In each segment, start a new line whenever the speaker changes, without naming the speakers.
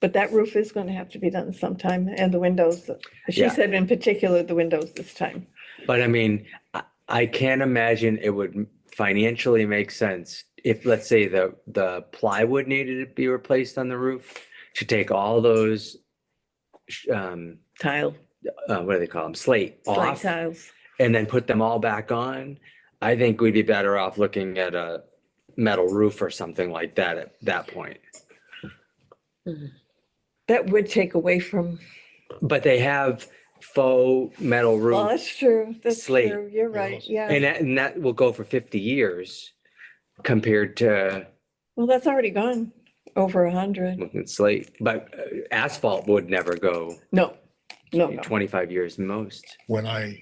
But that roof is going to have to be done sometime and the windows, she
Yeah.
said in particular, the windows this time.
But I mean, I, I can't imagine it would financially make sense if, let's say, the, the plywood needed to be replaced on the roof to take all those, sh- um,
Tile,
uh, what do they call them? Slate
slide
off
tiles.
and then put them all back on. I think we'd be better off looking at a metal roof or something like that at that point.
That would take away from,
But they have faux metal
well,
roofs.
that's true. That's
Slate
true. You're right.
panels.
Yeah.
And that, and that will go for 50 years compared to
Well, that's already gone over a hundred.
looking at slate, but uh, asphalt would never go
No, no, no.
25 years most.
When I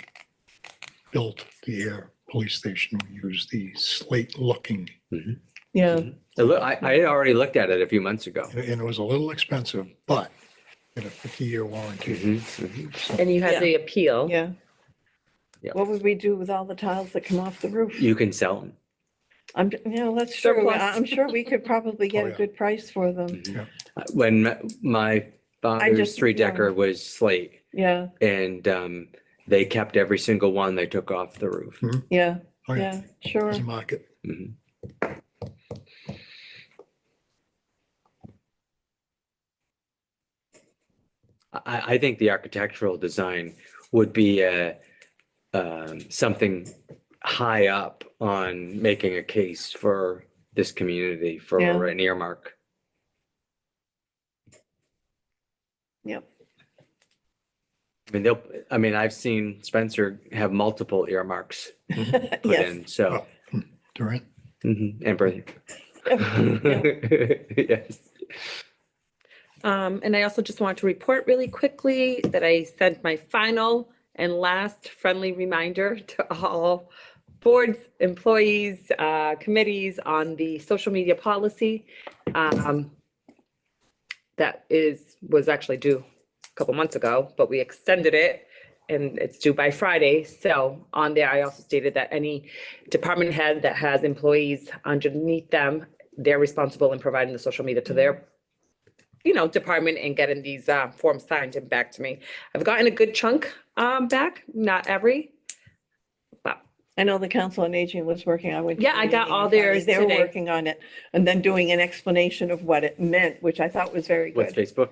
built the air police station, we used the slate-looking,
Yeah.
I Mm-hmm. loo- I, I had already looked at it a few months ago.
and it was a little expensive, but in a 50-year warranty.
Mhm,
Mm-hmm.
mhm.
And you
Yeah.
had the appeal.
Yeah.
Yeah.
What would we do with all the tiles that come off the roof?
You can sell them.
I'm, you know, that's true.
Surplus.
I- I'm sure we could probably
Oh,
get a
yeah.
good price for them.
Mm-hmm. Uh, When m- my father's
just-
three decker was slate
Yeah,
and um, they kept every single one they took off the roof.
yeah,
Oh,
yeah, sure.
There's a market.
Mhm. I, I think the architectural design would be uh, um, something high up on making a case for this community for
Yeah.
an earmark.
Yep.
I mean, they'll, I mean, I've seen Spencer have multiple earmarks put
Yes.
in, so.
Durant,
mhm, And breathing. Yes.
Um, and I also just want to report really quickly that I sent my final and last friendly reminder to all boards, employees, uh, committees on the social media policy. Um, that is, was actually due a couple months ago, but we extended it and it's due by Friday. So on there, I also stated that any department head that has employees underneath them, they're responsible in providing the social media to their you know, department and getting these uh, forms signed and back to me. I've gotten a good chunk um, back, not every. But
I know the Council on Aging was working, I went. to
Yeah,
the
I got
meeting
all
on Friday.
theirs
They were
today.
working on it and then doing an explanation of what it meant, which I thought was very
What's
good.
Facebook?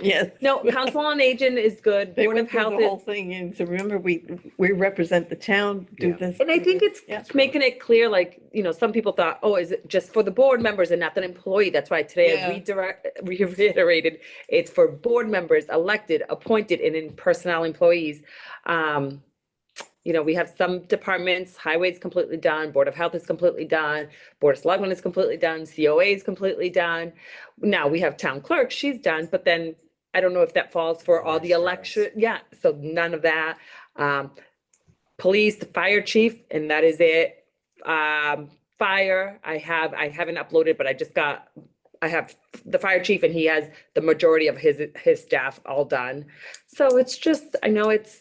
Yes.
no, council on agent is good.
They
Board of
went through the
health
whole
is,
thing and so remember, we, we represent the town, do
Yeah.
this.
and I
do
think
this.
it's
Yeah.
making it clear, like you know, some people thought, oh, is it just for the board members and not an employee? That's why today
Yeah.
I redirect, reiterated, it's for board members, elected, appointed, and in personnel employees. Um, you know, we have some departments, highways completely done, Board of Health is completely done, Board of Selectmen is completely done, COA is completely done. Now we have town clerk, she's done, but then I don't know if that falls for all the
Vice
election, yeah, so none of that. Um, police, the fire chief, and that is it. Um, fire, I have, I haven't uploaded, but I just got, I have the fire chief and he has the majority of his, his staff all done. So it's just, I know it's,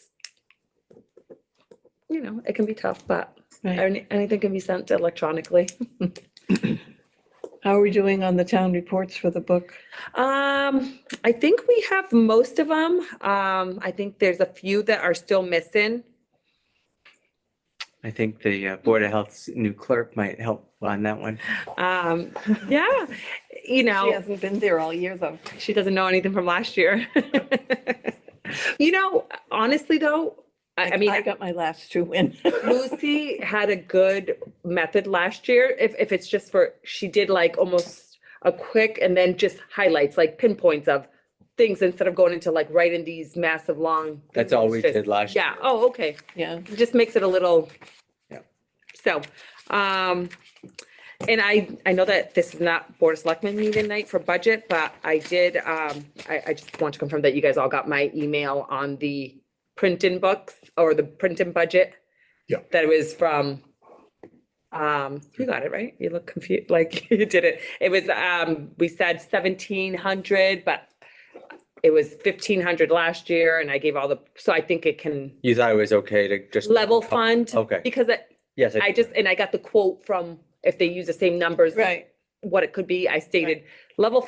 you know, it can be tough, but
Right.
any- anything can be sent electronically.
How are we doing on the town reports for the book?
Um, I think we have most of them. Um, I think there's a few that are still missing.
I think the uh, Board of Health's new clerk might help on that one.
Um, yeah, you know.
She hasn't been there all year though.
She doesn't know anything from last year. you know, honestly, though, I, I mean,
I got my last two in.
Lucy had a good method last year. If, if it's just for, she did like almost a quick and then just highlights, like pinpoints of things instead of going into like writing these massive long.
That's all we
just-
did last year.
Yeah. Oh, okay.
Yeah.
It just makes it a little.
Yeah.
So, um, and I, I know that this is not Board of Selectmen meeting night for budget, but I did, um, I, I just want to confirm that you guys all got my email on the printing books or the printing budget.
Yeah.
That it was from, um, you got it, right? You look confused, like you did it. It was, um, we said seventeen hundred, but it was fifteen hundred last year and I gave all the, so I think it can
You thought it was okay to just.
level fund.
Oh, Okay.
Because I-
Yes.
I just, and I got the quote from, if they use the same numbers.
Right.
What it could be, I stated, level